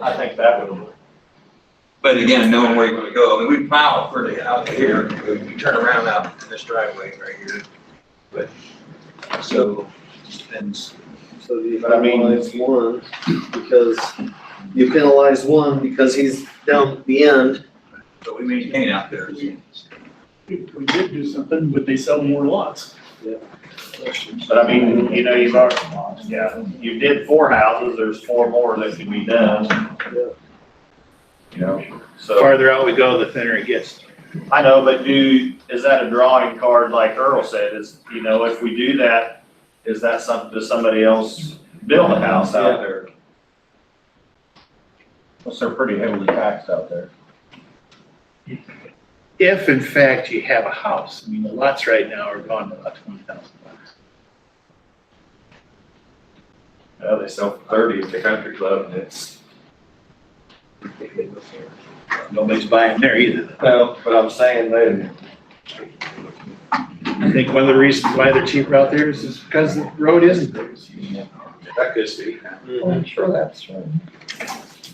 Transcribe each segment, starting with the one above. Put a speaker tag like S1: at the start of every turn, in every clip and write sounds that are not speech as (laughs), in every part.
S1: I think that would,
S2: But again, knowing where you're gonna go, I mean, we plow pretty out here, we we turn around out in this driveway right here. But, so, and
S3: So you
S1: But I mean-
S3: penalize one because, you penalize one because he's down the end.
S2: so we maintain out there.
S4: We we did do something, but they sell more lots.
S1: but I mean, you know, you've already, yeah, you did four houses, there's four more that could be done. You know, so,
S5: farther out we go, the thinner it gets.
S1: I know, but do, is that a drawing card like Earl said, is, you know, if we do that, is that some, does somebody else build a house out there? Well, they're pretty heavily taxed out there.
S5: If in fact you have a house, I mean, the lots right now are gone to about twenty thousand bucks.
S1: Yeah, they sell for thirty at the country club and it's.
S5: Nobody's buying there either.
S1: Well, but I'm saying then.
S5: I think one of the reasons why they're cheaper out there is is because the road isn't theirs. That could be.
S1: I'm sure that's right.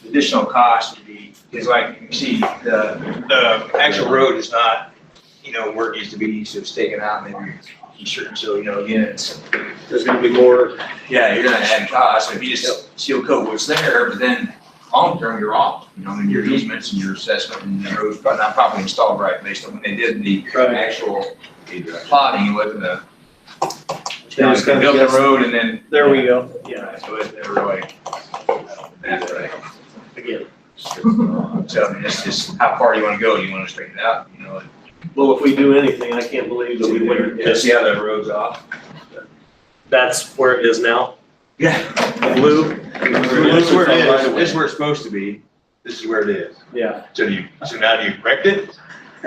S2: Additional cost would be, is like, you see, the, the actual road is not, you know, where it needs to be, so it's taken out, maybe, you sure, so, you know, again, it's
S3: There's gonna be more,
S2: Yeah, you're gonna add costs, if you just seal coat what's there, but then long term, you're off, you know, and your easements and your assessment and the roads, but not properly installed right based on when they did the
S3: Right.
S2: actual plotting, it wasn't a. They
S3: Yeah, it's
S2: built
S3: gonna
S2: the
S3: guess.
S2: road and then.
S3: there we go.
S2: Yeah, so it, they were like. That's right.
S3: Again.
S2: So I mean, it's just how far you wanna go, you wanna straighten it out, you know,
S3: Well, if we do anything, I can't believe that we wouldn't,
S2: and see how the road's off.
S3: that's where it is now.
S2: Yeah.
S3: Blue,
S2: This is where it is, this is where it's supposed to be, this is where it is.
S3: yeah.
S2: So do you, so now do you correct it?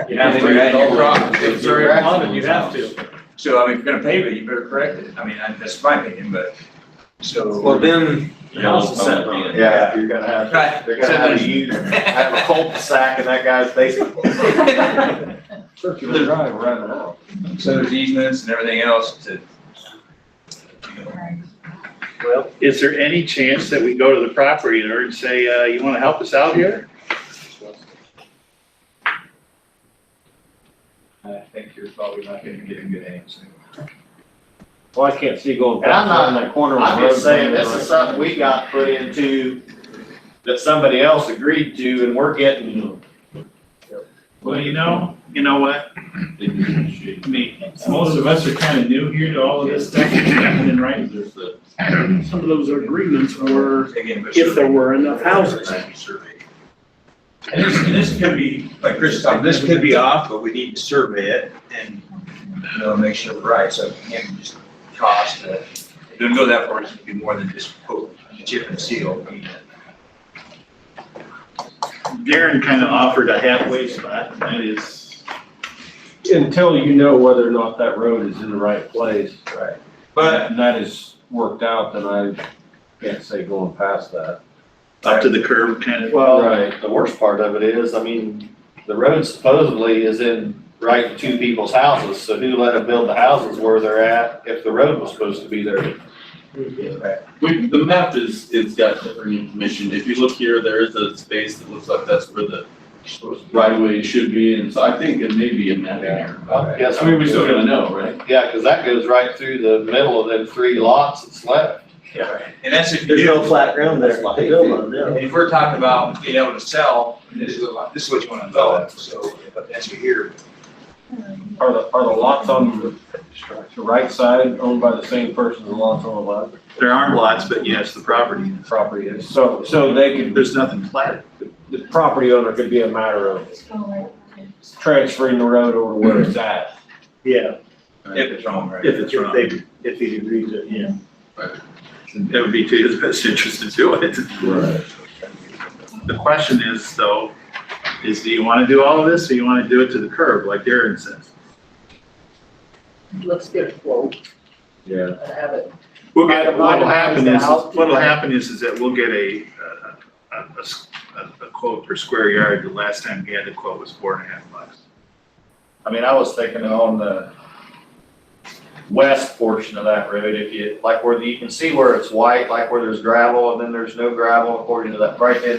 S3: You
S2: have to. Yeah, you're wrong.
S3: It's very common, you have to.
S2: So I mean, if you're gonna pave it, you better correct it. I mean, I- that's my opinion, but, so.
S3: Well, then, the house is set.
S1: Yeah, you're gonna have,
S2: Right.
S1: they're gonna have you have a cul-de-sac in that guy's
S3: (laughs)
S1: basement.
S2: Circular
S1: drive running out.
S2: (laughs) So there's easements and everything else to.
S3: Well,
S5: Is there any chance that we go to the property owner and say, uh, you wanna help us out here?
S2: I think you're probably not gonna get a good answer.
S6: Well, I can't see going
S1: And I'm
S6: back
S1: not-
S6: around that corner.
S1: I'm just saying, this is something we got put into that somebody else agreed to and we're getting.
S4: Well, you know, you know what? I mean, most of us are kind of new here to all of this stuff that's happening, right? Some of those agreements were,
S2: Again, but.
S4: if there were enough houses.
S2: Survey. And this, and this could be, like Chris said, this could be off, but we need to survey it and, you know, make sure we're right, so it can't just cost, uh, don't go that far, it's gonna be more than just quote, chip and seal. I mean,
S4: Darren kind of offered a halfway spot, and that is,
S6: Until you know whether or not that road is in the right place.
S2: Right. But
S6: And that is worked out, then I can't say going past that.
S5: Up to the curb kind of?
S1: Well,
S6: Right.
S1: the worst part of it is, I mean, the road supposedly is in right in two people's houses, so who let them build the houses where they're at if the road was supposed to be there?
S7: We, the map is, it's got different information. If you look here, there is a space that looks like that's where the right of way should be, and so I think it may be a map in there.
S1: Yes,
S7: I mean, we still gotta know, right?
S1: Yeah, cause that goes right through the middle of them three lots that's left.
S2: And that's if you
S3: there's no
S2: do,
S3: flat ground there to build on, yeah.
S2: if we're talking about being able to sell, this is, what- this is what you wanna develop, so, but that's your here.
S6: Are the, are the lots on the, the right side owned by the same person as the lots on the left
S5: There aren't lots, but yes, the property.
S6: property is? So, so they could,
S5: There's nothing platted.
S6: the property owner could be a matter of transferring the road over to where it's at.
S4: yeah,
S2: If it's wrong, right?
S5: If it's wrong, it
S4: if they, if he agrees, to, yeah.
S5: would be to his best interest to do it. The question is though, is do you want to do all of this or you want to do it to the curb like Darren says?
S8: Let's get a quote
S6: Yeah.
S8: and have it.
S5: We'll get, what'll happen is,
S8: Itemized out.
S5: what'll happen is, is that we'll get a, a- a, a s- a- a quote per square yard. The last time we had a quote was four and a half bucks.
S1: I mean, I was thinking on the west portion of that road, if you, like where the, you can see where it's white, like where there's gravel and then there's no gravel according to that, right in